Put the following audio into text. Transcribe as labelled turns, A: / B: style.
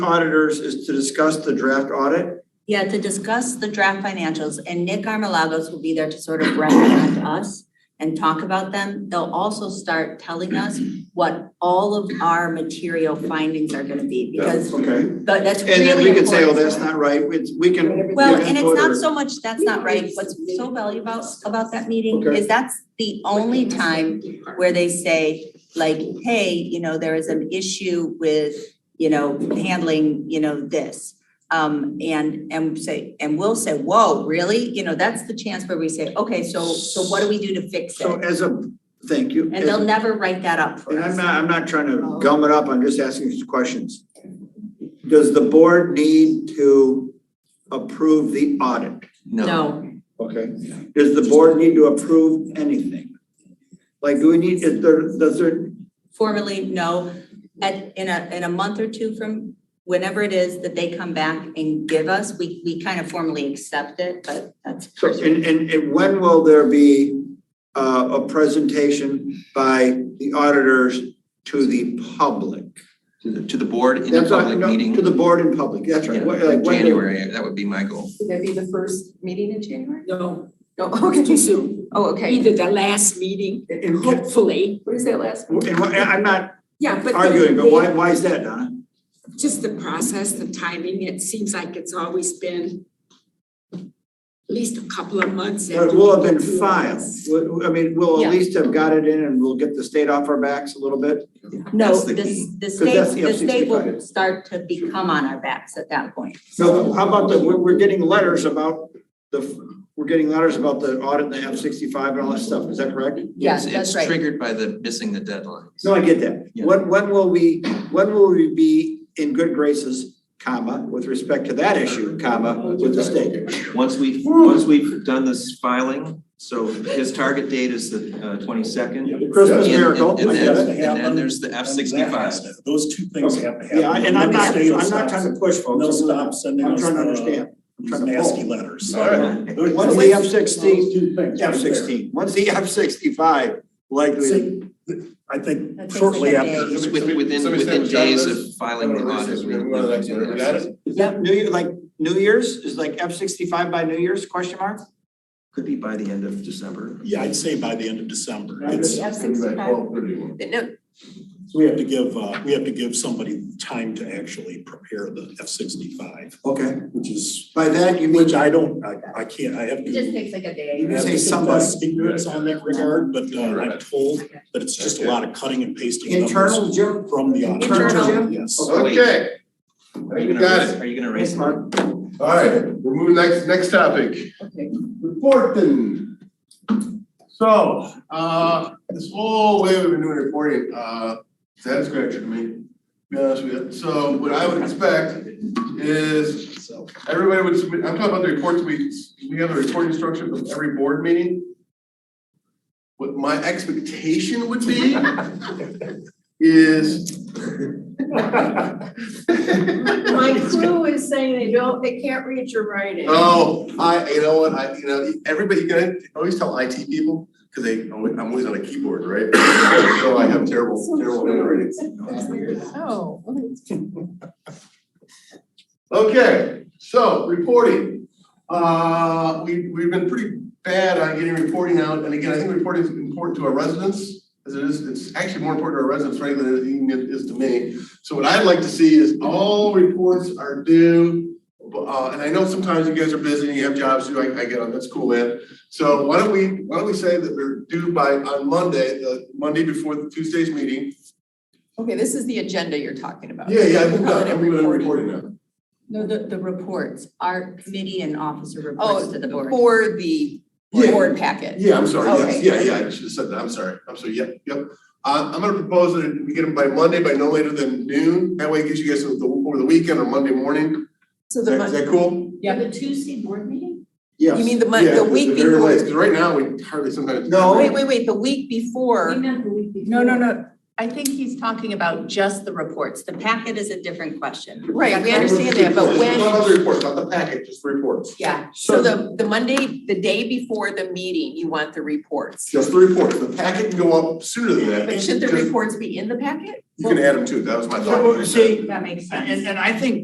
A: auditors is to discuss the draft audit.
B: Yeah, to discuss the draft financials and Nick Armalagos will be there to sort of represent us and talk about them. They'll also start telling us what all of our material findings are gonna be because
A: Okay,
B: but that's really
A: and then
B: important.
A: we can say, oh, that's not right, it's, we can.
B: Well,
A: we can
B: and it's
A: vote
B: not
A: or-
B: so much, that's not right. What's so valuable about, about that meeting
A: Okay.
B: is that's the only time where they say like, hey, you know, there is an issue with, you know, handling, you know, this. Um, and, and say, and we'll say, whoa, really? You know, that's the chance where we say, okay, so, so what do we do to fix
A: So
B: it?
A: as a, thank you.
B: And they'll
A: As-
B: never write that up for
A: And I'm
B: us.
A: not, I'm not trying to gum it up, I'm just asking you questions. Does the board need to approve the audit?
B: No,
A: Okay. Does the board need to approve anything? Like, do we need, is there, does there,
B: formally, no. At, in a, in a month or two from whenever it is that they come back and give us, we, we kind of formally accept it, but that's.
A: so, and, and, and when will there be uh, a presentation by the auditors to the public?
C: to the, to the board in a
A: That's what-
C: public
A: no,
C: meeting.
A: To the board in public, that's right.
C: Yeah,
A: What- like,
C: in
A: when do-
C: January, that would be my goal.
D: Would that be the first meeting in January?
E: No,
D: No, okay,
E: too soon.
D: oh, okay.
E: Either the last meeting,
A: And, and can-
E: hopefully,
D: What is that last?
A: and what- and I'm not
E: yeah, but. the-
A: arguing, but why, why is that, Donna?
E: Just the process, the timing, it seems like it's always been at least a couple of months.
A: But
E: after
A: it will have
E: we
A: been
E: get through
A: filed.
E: this.
A: We- I mean, we'll
B: Yeah.
A: at least have got it in and we'll get the state off our backs a little bit.
B: No,
C: That's the
B: this,
C: key.
B: the
A: that's
B: state,
A: the
B: the state will
A: F-65.
B: start to become on our backs at that point.
A: So how about the, we're, we're getting letters about the, we're getting letters about the audit and the F sixty-five and all that stuff, is that correct?
B: Yeah,
C: It's-
B: that's right.
C: It's triggered by the missing the deadline.
A: No, I get that.
C: Yeah.
A: When, when will we, when will we be in good graces, comma, with respect to that issue, comma, with the state?
C: Once we've, once we've done this filing, so his target date is the uh, twenty-second.
A: The Christmas miracle,
C: And
A: I
C: then,
A: get it.
C: and then there's the F sixty-five.
F: Those two things have to happen.
A: Yeah, and I'm not,
F: They'll
A: I'm
F: stop-
A: not trying to push folks.
F: They'll stop sending
A: I'm
F: us
A: trying to
F: the,
A: understand. I'm
F: these
A: trying to
F: nasty
A: pull.
F: letters.
A: All right. Once the F sixteen, F sixteen, once the F sixty-five likely.
F: See, th- I
B: That
F: think
B: takes
F: shortly
B: like a
F: after.
C: With, within,
G: Somebody said
C: within
G: we got
C: days
G: this?
C: of filing the audit. we- we can do that.
A: Is that New Year, like New Year's, is like F sixty-five by New Year's, question mark?
C: Could be by the end of December.
F: Yeah, I'd say by the end of December.
A: Right.
F: It's,
D: No,
F: we have to give, uh, we have to give somebody time to actually prepare the F sixty-five,
A: Okay,
F: which is,
A: by that you mean,
F: which I don't, I, I can't, I have to.
D: takes like a
A: You
D: day.
A: can
F: I have
A: say
F: to confess
A: somebody.
F: Ignorance on that regard, but uh, I'm
G: Right.
F: told that it's just a lot of cutting and pasting numbers
A: internal, Jim?
F: from the auditor.
A: Internal, Jim?
F: Yes.
G: Okay,
C: Are you gonna,
G: Got
C: raise- are you gonna raise?
A: Thanks, Mark.
G: all right, we're moving next, next topic,
D: Okay.
G: reporting. So, uh, this whole way we've been doing reporting, uh, that's scratcher to me, to be honest with you. So what I would expect is
F: So,
G: Everybody would submit, I'm talking about the reports, we, we have a reporting structure from every board meeting. What my expectation would be is.
H: My crew is saying they don't, they can't read your writing.
G: Oh, I, you know what, I, you know, everybody, you can always tell IT people, because they, always- I'm always on a keyboard, right? So I have terrible, terrible handwriting.
D: Oh.
G: Okay, so reporting. Uh, we, we've been pretty bad on getting reporting out, and again, I think reporting is important to our residents. As it is, it's actually more important to our residents, frankly, than it even is to me. So what I'd like to see is all reports are due. Uh, and I know sometimes you guys are busy and you have jobs to do, I, I get on, that's cool, man. So why don't we, why don't we say that they're due by, on Monday, the Monday before the Tuesday's meeting?
D: Okay, this is the agenda you're talking about.
G: Yeah, yeah, I moved on,
D: Calendar
G: I'm moving on to
D: reporting.
G: reporting now.
B: No, the, the reports, our committee and officer reports
D: Oh,
B: to the board.
D: for the
G: Yeah.
D: board packet.
G: Yeah, I'm sorry, yes,
D: Okay.
G: yeah, yeah, I should have said that, I'm sorry, I'm sorry, yep, yep. Uh, I'm gonna propose that we get them by Monday, by no later than noon, that way it gives you guys the- over the weekend or Monday morning,
D: So
G: is
D: the
G: that, is
D: Monday,
G: that cool?
D: Yeah.
H: The Tuesday board meeting?
A: Yes.
D: you mean the Monday, the week
G: Yeah,
D: before? oh,
G: because right now, we hardly sometimes.
A: No.
D: Wait, wait, wait, the week
H: We
D: before,
H: meant the week before.
D: no, no, no, I think he's talking about just the reports,
B: The packet is a different question.
D: Right, we understand that, but when.
G: Not other reports, not the packet, just reports,
D: Yeah,
A: So-
D: so the, the Monday, the day before the meeting, you want the reports.
G: just the reports, the packet can go up sooner than that.
D: But should the
G: just-
D: reports be in the packet?
I: You can add them too, that was my thought.
B: So, see,
G: That makes sense.
B: and, and I think